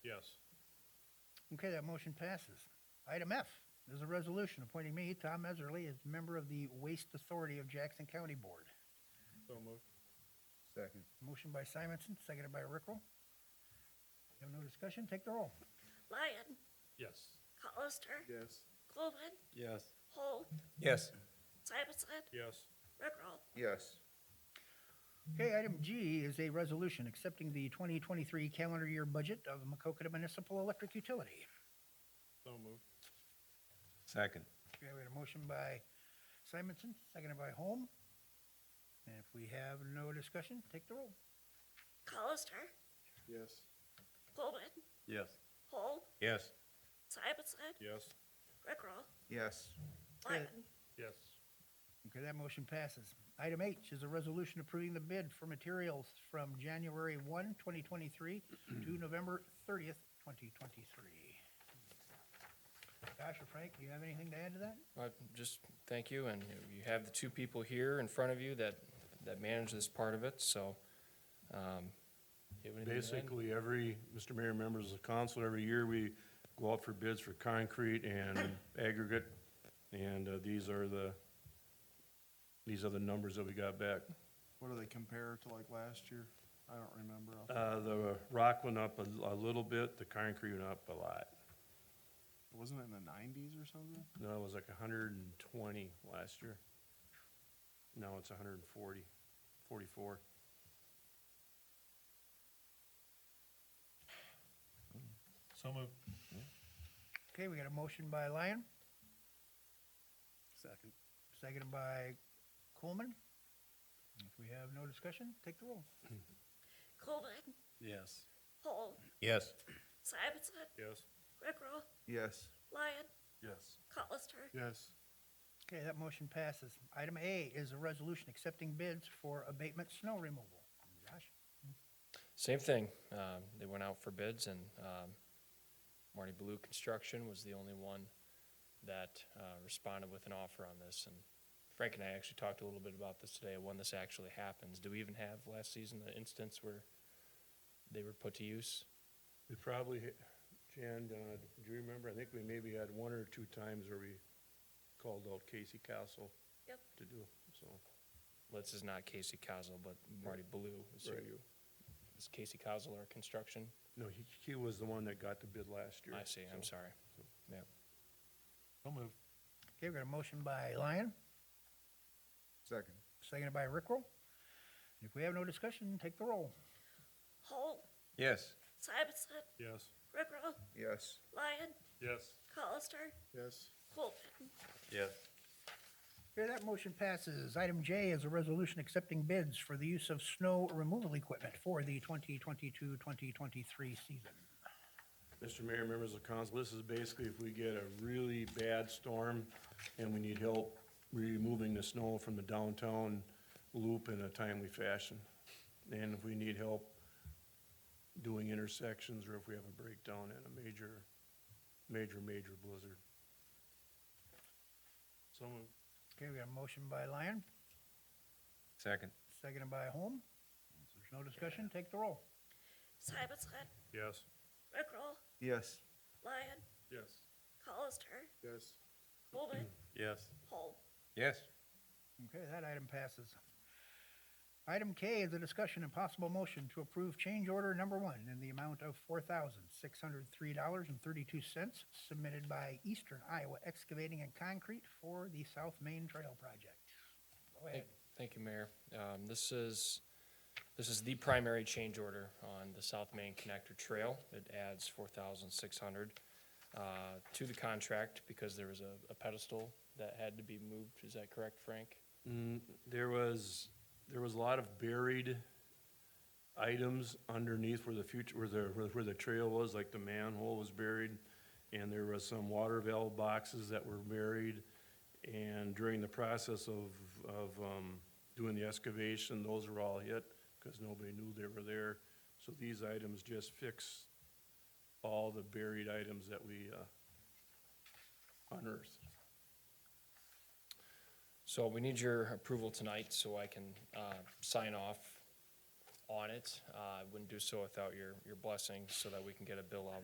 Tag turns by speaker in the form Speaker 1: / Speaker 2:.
Speaker 1: Okay, that motion passes. Item F is a resolution appointing me, Tom Meserly, as member of the Waste Authority of Jackson County Board.
Speaker 2: So moved.
Speaker 3: Second.
Speaker 1: Motion by Simonson, seconded by Rickrell. You have no discussion? Take the roll.
Speaker 4: Lyon,
Speaker 2: Yes.
Speaker 4: Colister,
Speaker 3: Yes.
Speaker 4: Coleman,
Speaker 2: Yes.
Speaker 4: Holt,
Speaker 5: yes,
Speaker 4: Simonson,
Speaker 2: Yes.
Speaker 4: Rickrell.
Speaker 3: Yes.
Speaker 1: Okay, item G is a resolution accepting the 2023 calendar year budget of Macokota Municipal Electric Utility.
Speaker 2: So moved.
Speaker 5: second,
Speaker 1: Okay, we had a motion by Simonson, seconded by Holm. And if we have no discussion, take the roll.
Speaker 4: Colister,
Speaker 3: Yes.
Speaker 4: Coleman,
Speaker 5: yes,
Speaker 4: Holt,
Speaker 5: yes,
Speaker 4: Simonson,
Speaker 2: Yes.
Speaker 4: Rickrell,
Speaker 3: Yes.
Speaker 4: Lyon,
Speaker 2: Yes.
Speaker 1: Okay, that motion passes. Item H is a resolution approving the bid for materials from January 1, 2023 to November 30th, 2023. Josh or Frank, do you have anything to add to that?
Speaker 6: I just thank you, and you- you have the two people here in front of you that, that manage this part of it, so. um, you have anything to add?
Speaker 2: Basically, every, Mr. Mayor, members of the council, every year we go out for bids for concrete and aggregate. And uh, these are the, these are the numbers that we got back.
Speaker 3: What do they compare to like last year? I don't remember. off the-
Speaker 2: Uh, the rock went up a, a little bit, the concrete went up a lot.
Speaker 3: Wasn't it in the nineties or something?
Speaker 2: No, it was like hundred and twenty last year. Now it's 140, 44.
Speaker 7: So moved.
Speaker 1: Okay, we got a motion by Lyon. Second. Seconded by Coleman. If we have no discussion, take the roll.
Speaker 4: Coleman,
Speaker 2: Yes.
Speaker 4: Holt,
Speaker 5: yes,
Speaker 4: Simonson,
Speaker 2: Yes.
Speaker 4: Rickrell,
Speaker 3: Yes.
Speaker 4: Lyon,
Speaker 2: Yes.
Speaker 4: Colister,
Speaker 3: Yes.
Speaker 1: Okay, that motion passes. Item A is a resolution accepting bids for abatement snow removal. Josh?
Speaker 6: Same thing. Um, they went out for bids and, um, Marty Blue Construction was the only one that, uh, responded with an offer on this. And Frank and I actually talked a little bit about this today, when this actually happens. Do we even have last season the instance where they were put to use?
Speaker 2: We probably, ha- Jan, uh, do you remember, I think we maybe had one or two times where we called out Casey Castle.
Speaker 4: Yep.
Speaker 2: To do, so,
Speaker 6: Well, This is not Casey Cosell, but Marty Blue is who
Speaker 2: Right.
Speaker 6: you, is Casey Cosell our construction?
Speaker 2: no, he, he was the one that got the bid last year.
Speaker 6: I see, I'm
Speaker 2: so.
Speaker 6: sorry. Yeah.
Speaker 7: So moved.
Speaker 1: Okay, we got a motion by Lyon,
Speaker 3: Second.
Speaker 1: seconded by Rickrell. If we have no discussion, take the roll.
Speaker 4: Holt,
Speaker 5: yes,
Speaker 4: Simonson,
Speaker 2: Yes.
Speaker 4: Rickrell,
Speaker 3: Yes.
Speaker 4: Lyon,
Speaker 2: Yes.
Speaker 4: Colister,
Speaker 3: Yes.
Speaker 4: Coleman,
Speaker 5: yes,
Speaker 1: Okay, that motion passes. Item J is a resolution accepting bids for the use of snow removal equipment for the 2022-2023 season.
Speaker 2: Mr. Mayor, members of council, this is basically if we get a really bad storm and we need help removing the snow from the downtown loop in a timely fashion. And if we need help doing intersections or if we have a breakdown in a major, major, major blizzard.
Speaker 7: So moved.
Speaker 1: Okay, we got a motion by Lyon,
Speaker 5: second,
Speaker 1: seconded by Holm. If There's no discussion, take the roll.
Speaker 4: Simonson,
Speaker 2: Yes.
Speaker 4: Rickrell,
Speaker 3: Yes.
Speaker 4: Lyon,
Speaker 2: Yes.
Speaker 4: Colister,
Speaker 3: Yes.
Speaker 4: Coleman,
Speaker 5: yes,
Speaker 4: Holt,
Speaker 5: yes,
Speaker 1: Okay, that item passes. Item K is a discussion and possible motion to approve change order number one in the amount of four thousand six hundred three dollars and thirty-two cents submitted by Eastern Iowa Excavating and Concrete for the South Main Trail Project. Go ahead.
Speaker 6: Thank- Thank you, Mayor. Um, This is, this is the primary change order on the South Main Connector Trail. It adds 4,600 uh, to the contract because there was a a pedestal that had to be moved. Is that correct, Frank?
Speaker 2: Mm, there was, there was a lot of buried items underneath where the future, where the, where- where the trail was, like the manhole was buried. And there was some water valve boxes that were buried. And during the process of, of, um, doing the excavation, those were all hit because nobody knew they were there. So these items just fix all the buried items that we, uh, unearthed.
Speaker 6: So we need your approval tonight so I can uh, sign off on it. Uh, I wouldn't do so without your, your blessing so that we can get a bill out